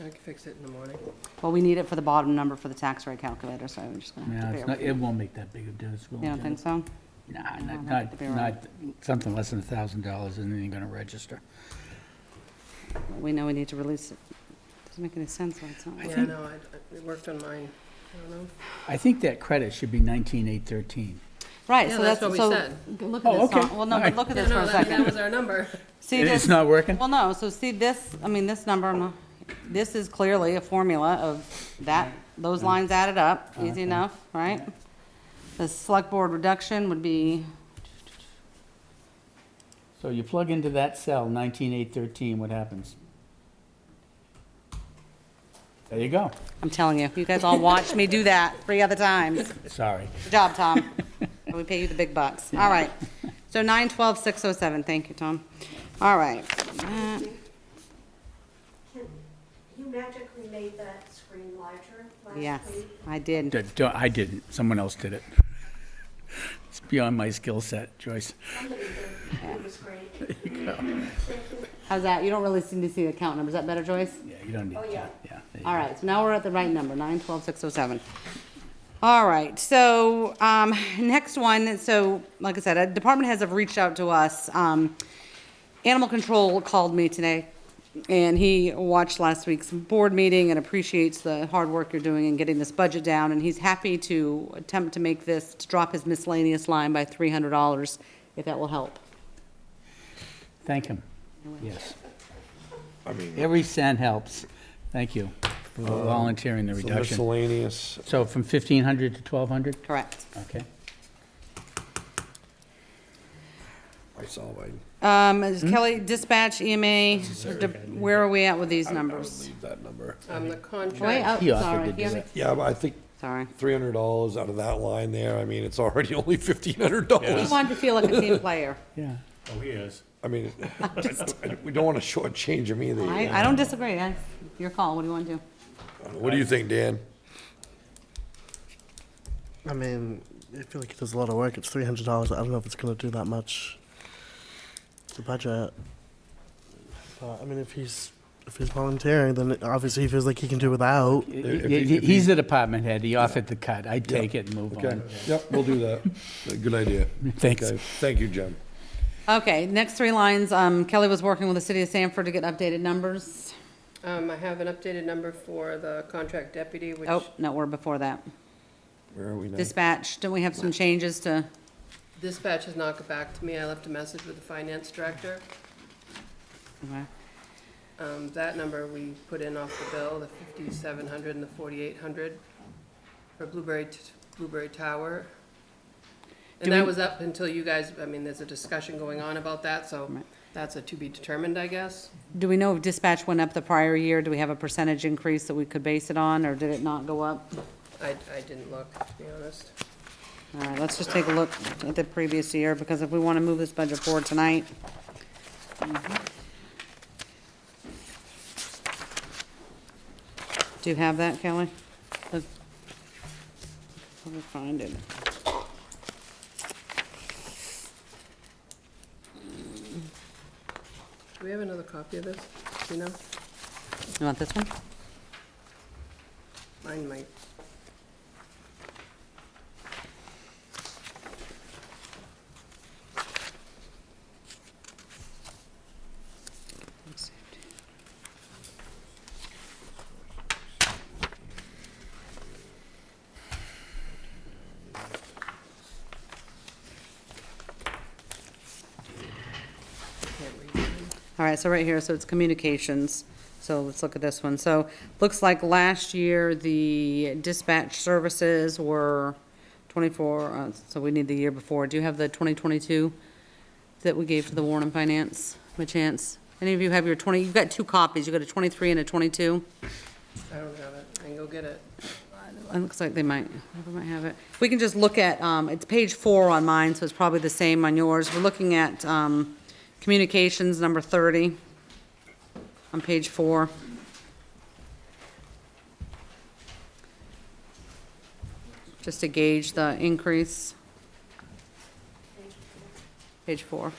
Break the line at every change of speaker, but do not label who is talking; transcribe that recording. I can fix it in the morning.
Well, we need it for the bottom number for the tax rate calculator, so we're just gonna have
No,
to
it's
bear
not,
with
it won't make that big of a difference. will
You don't
it?
think so?
Nah,
No,
not,
not the
not,
big one.
not, something less than a thousand dollars and then you're gonna register.
We know we need to release it. Doesn't make any sense when it's not.
Yeah, I know, I, I worked on mine, I don't know.
I think that credit should be nineteen eight thirteen.
Right,
Yeah,
so
that's
that's, so,
what we said.
g- look at
Oh,
this,
okay.
not- well, no,
All
but
right.
look at
Yeah,
this for
no,
a
that, that
second.
was our number.
See
It's
this,
not working?
well, no, so see this, I mean, this number, I'm not- this is clearly a formula of that, those lines added up, easy
Okay.
enough, right? The select board reduction would be,
So you plug into that cell, nineteen eight thirteen, what happens? There you go.
I'm telling you, you guys all watched me do that three other times.
Sorry.
Good job, Tom. We pay you the big bucks. All right. So nine twelve six oh seven. Thank you, Tom. All right. Uh,
Can- You magically made that screen larger last week.
Yes, I did.
D- don't- I didn't, someone else did it. It's beyond my skill set, Joyce.
Somebody did. It was great.
How's that? You don't really seem to see the account numbers. Is that better, Joyce?
Yeah, you don't need
Oh,
to, yeah.
yeah.
there you
All
go.
right, so now we're at the right number, nine twelve six oh seven. All right, so, um, next one, so, like I said, uh, department heads have reached out to us. Um, Animal Control called me today, and he watched last week's board meeting and appreciates the hard work you're doing in getting this budget down, and he's happy to attempt to make this, to drop his miscellaneous line by three hundred dollars, if that will help.
Thank him, yes.
I mean, uh,
Every cent helps. Thank you for volunteering the
it's a
reduction.
miscellaneous,
So from 1,500 to 1,200?
Correct.
Okay.
I saw mine.
Um, is Kelly, dispatch, EMA, de- where are we at with these
I- I would
numbers?
leave That number.
On Um, the
Wait,
contract,
oh,
He offered
sorry,
to
yeah.
do that.
Yeah, but I think
Sorry.
three hundred dollars out of that line there, I mean, it's already only fifteen hundred
He
dollars.
wanted to feel like a team player.
Yeah.
Oh, he is.
I mean, I don't- we don't wanna shortchange them either.
I, I don't disagree. That's your call. What do you want to do?
What do you think, Dan?
I mean, I feel like it does a lot of work. It's three hundred dollars. I don't know if it's gonna do that much. to The budget. But I mean, if he's if he's volunteering, then obviously he feels like he can do without.
He-
If-
he-
if he-
He's the department head. He offered the cut. I take it and move
Okay,
on.
yep, we'll do that. Good idea.
Thanks.
Okay, Thank you, Jim.
Okay, next three lines. Um, Kelly was working with the city of Sanford to get updated numbers.
um, I have an updated number for the contract deputy, which,
Oh, no, we're before that.
Where are we now?
Dispatch, don't we have some changes to,
dispatch has not got back to me, I left a message with the finance director.
okay.
Um, that number we put in off the bill, the fifty-seven hundred and the forty-eight hundred for Blueberry, t- Blueberry Tower.
Do
And that
we-
was up until you guys, I mean, there's a discussion going on about that, so
Right.
that's a to be determined, I guess.
do we know if dispatch went up the prior year? Do we have a percentage increase that we could base it on, or did it not go up?
I, I didn't look, to be honest.
All right, let's just take a look at the previous year, because if we want to move this budget forward tonight. Do you have that, Kelly? Look. Let me find it.
Do we have another copy of this? Do you know?
You want this one?
Mine might. Can't read mine.
All right, so right here, so it's communications. So let's look at this one. So, looks like last year, the dispatch services were 24, uh, so we need the year before. Do you have the 2022 that we gave to the Warren and Finance, by chance? Any of you have your 20, you've got two copies. You've got a 23 and a 22?
I don't have it. I can go get it.
It looks like they might, they might have it. If we can just look at, um, it's page four on mine, so it's probably the same on yours. We're looking at, um, communications, number thirty, on page four. Just to gauge the increase. Page four.